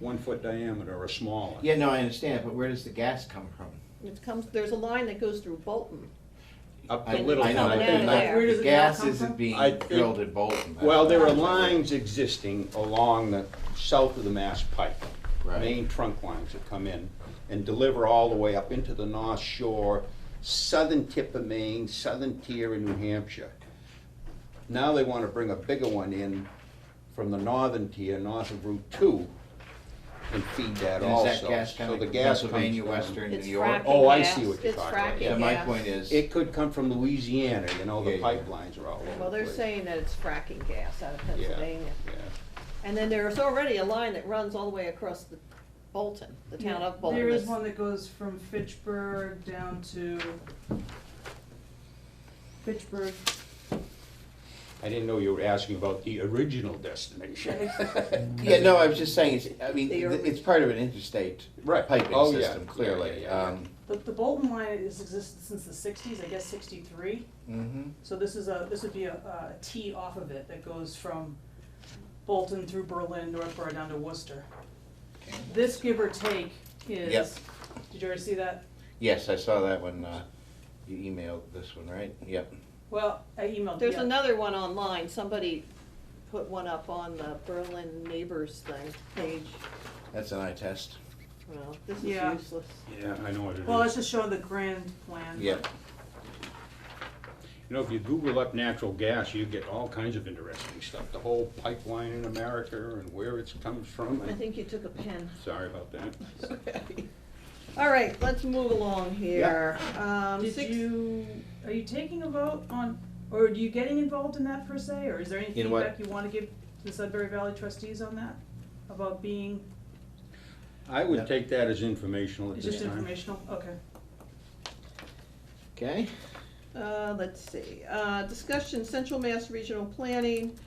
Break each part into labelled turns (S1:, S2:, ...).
S1: one foot diameter or smaller.
S2: Yeah, no, I understand, but where does the gas come from?
S3: It comes, there's a line that goes through Bolton.
S1: Up
S2: I-
S1: the little
S2: I
S1: one,
S2: know,
S1: I
S2: but
S3: Yeah,
S1: think.
S2: not-
S3: there. Where
S4: does
S2: The
S4: the gas
S2: gas
S4: come
S2: isn't
S4: from?
S1: I
S2: being
S1: think-
S2: drilled at Bolton.
S1: Well, there are lines existing along the south of the Mass Pike.
S2: Right.
S1: Main trunk lines that come in and deliver all the way up into the North Shore, southern tip of Maine, southern tier in New Hampshire. Now they want to bring a bigger one in from the northern tier, north of Route Two, and feed that
S2: And
S1: also.
S2: is that gas
S1: So
S2: coming
S1: the
S2: from
S1: gas comes
S2: Pennsylvania,
S1: down.
S2: Western, New
S3: It's
S2: York?
S3: fracking
S1: Oh, I
S3: gas.
S1: see what you're
S3: It's
S1: talking about.
S3: fracking
S2: Yeah, my
S3: gas.
S2: point is,
S1: It could come from Louisiana, you know, the
S2: Yeah, yeah.
S1: pipelines are all over the place.
S3: Well, they're saying that it's fracking gas out of
S1: Yeah,
S3: Pennsylvania.
S1: yeah.
S3: And then there's already a line that runs all the way across the Bolton, the town of Bolton.
S4: There is
S3: that's-
S4: one that goes from Fitchburg down to Fitchburg.
S1: I didn't know you were asking about the original destination.
S2: yeah, no, I was just saying, it's, I mean,
S3: They
S2: th-
S3: are-
S2: it's part of an interstate
S1: Right.
S2: piping
S1: Oh, yeah.
S2: system,
S1: Yeah, yeah,
S2: clearly.
S1: yeah, yeah.
S2: Um,
S4: The, the Bolton line has existed since the sixties, I guess sixty-three.
S2: mhm.
S4: So this is a, this would be a, a T off of it that goes from Bolton through Berlin, Northborough down to Worcester.
S2: Okay.
S4: This give or take
S2: Yep.
S4: is, did you ever see that?
S2: Yes, I saw that one, uh, you emailed this one, right? Yep.
S4: Well, I emailed,
S3: There's
S4: yeah.
S3: another one online, somebody put one up on the Berlin Neighbors thing, page,
S2: That's an eye test.
S3: well, this is
S4: Yeah.
S3: useless.
S1: Yeah, I know what it is.
S4: Well, it's just showing the grand
S3: Uh-huh.
S4: plan.
S2: Yep.
S1: You know, if you Google up natural gas, you get all kinds of interesting stuff. The whole pipeline in America and where it comes from.
S3: I
S1: and-
S3: think you took a pen.
S1: Sorry about that.
S3: All right, let's move along here. Um,
S4: Did
S3: six-
S4: you, are you taking a vote on, or are you getting involved in that per se, or is there any
S2: In what?
S4: feedback you wanna give to the Sudbury Valley trustees on that? About being,
S1: I
S2: Yeah.
S1: would take that as informational at
S4: it's
S1: this
S4: just
S1: time.
S4: informational, okay.
S2: Okay.
S3: Uh, let's see, uh, discussion Central Mass Regional Planning,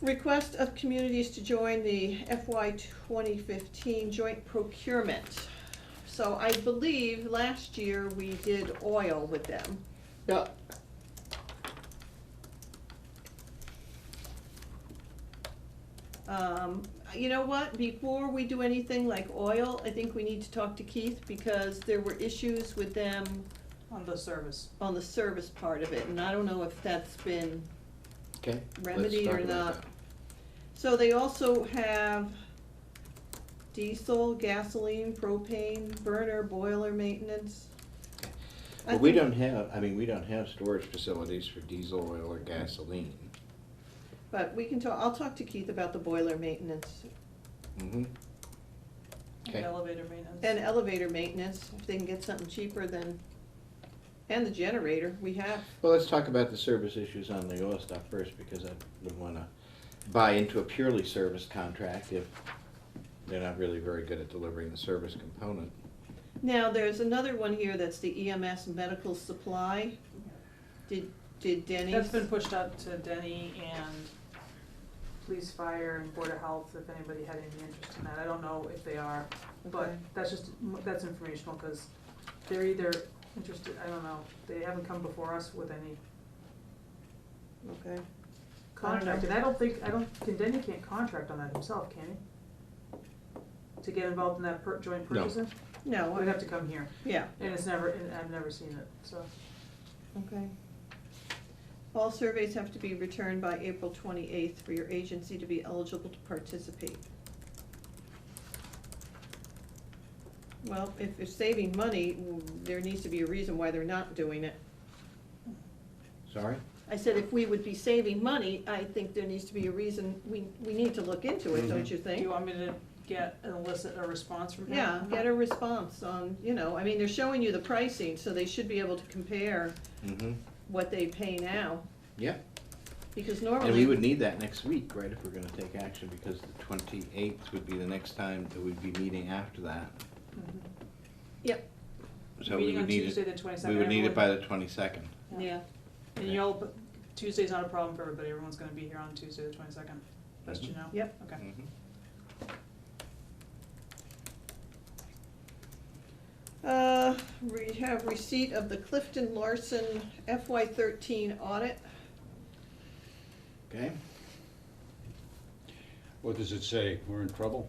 S3: request of communities to join the FY twenty fifteen joint procurement. So I believe last year we did oil with them.
S2: Yeah.
S3: Um, you know what, before we do anything like oil, I think we need to talk to Keith because there were issues with them
S4: On the service.
S3: on the service part of it, and I don't know if that's been
S2: Okay.
S3: remedied
S2: talk
S3: or
S2: about
S3: not.
S2: that.
S3: So they also have diesel, gasoline, propane, burner, boiler maintenance. I
S2: But we
S3: think-
S2: don't have, I mean, we don't have storage facilities for diesel, oil, or gasoline.
S3: But we can talk, I'll talk to Keith about the boiler maintenance
S2: Mm-hmm.
S4: and
S2: Okay.
S4: Elevator maintenance.
S3: and elevator maintenance, if they can get something cheaper than, and the generator we have.
S2: Well, let's talk about the service issues on the oil stuff first, because I wouldn't wanna buy into a purely service contract if they're not really very good at delivering the service component.
S3: Now, there's another one here that's the EMS medical supply. Did, did Denny's?
S4: That's been pushed out to Denny and police, fire, and border health, if anybody had any interest in that, I don't know if they are, but
S3: Okay.
S4: that's just, that's informational, cause they're either interested, I don't know, they haven't come before us with any
S3: Okay.
S4: contract, and I don't think, I don't, can Denny can't contract on that himself, can he? To get involved in that per, joint
S2: No.
S4: purchasing?
S3: No,
S4: We'd
S3: I-
S4: have to come here,
S3: yeah,
S4: and it's never, and I've never seen it, so.
S3: okay. All surveys have to be returned by April twenty-eighth for your agency to be eligible to participate. Well, if they're saving money, mm, there needs to be a reason why they're not doing it.
S2: Sorry?
S3: I said if we would be saving money, I think there needs to be a reason, we, we need to look into it,
S2: Mm-hmm.
S3: don't
S1: Mhm.
S3: you
S4: Do
S3: think?
S4: you want me to get, and elicit a response from him?
S3: Yeah, get a response on, you know, I mean, they're showing you the pricing, so they should be able to compare
S2: Mm-hmm.
S3: what they pay now,
S2: Yeah,
S3: because
S2: and we
S3: normally,
S2: would need that next week, right, if we're gonna take action, because the twenty-eighth would be the next time that we'd be meeting after that.
S4: Mhm.
S3: yep,
S2: So we
S4: Meeting on
S2: would need
S4: Tuesday,
S2: it,
S4: the twenty-second.
S2: we would need it by the twenty-second.
S3: yeah.
S4: And you all, but Tuesday's not a problem for everybody, everyone's gonna be here on Tuesday, the twenty-second, best you know?
S3: Mm-hmm. Yep.
S4: Okay.
S2: Mm-hmm.
S3: Uh, we have receipt of the Clifton Larson FY thirteen audit.
S2: Okay?
S1: What does it say? We're in trouble?